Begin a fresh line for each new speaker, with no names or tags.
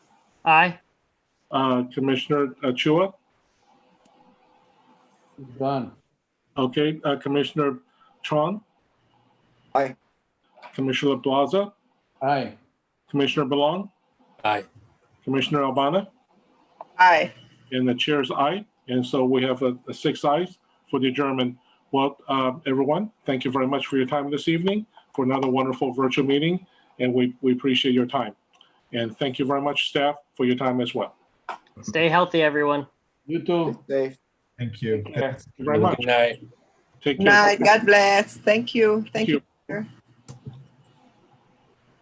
Aye.
Uh, Commissioner Chua?
Done.
Okay, uh, Commissioner Tron?
Aye.
Commissioner Plaza?
Aye.
Commissioner Belong?
Aye.
Commissioner Albana?
Aye.
And the chair's aye. And so we have a a six ayes for the adjournment. Well, uh, everyone, thank you very much for your time this evening, for another wonderful virtual meeting, and we we appreciate your time. And thank you very much, staff, for your time as well.
Stay healthy, everyone.
You too.
Dave.
Thank you.
Take care.
Thank you very much.
Good night.
Take care.
Night. God bless. Thank you. Thank
you.
you.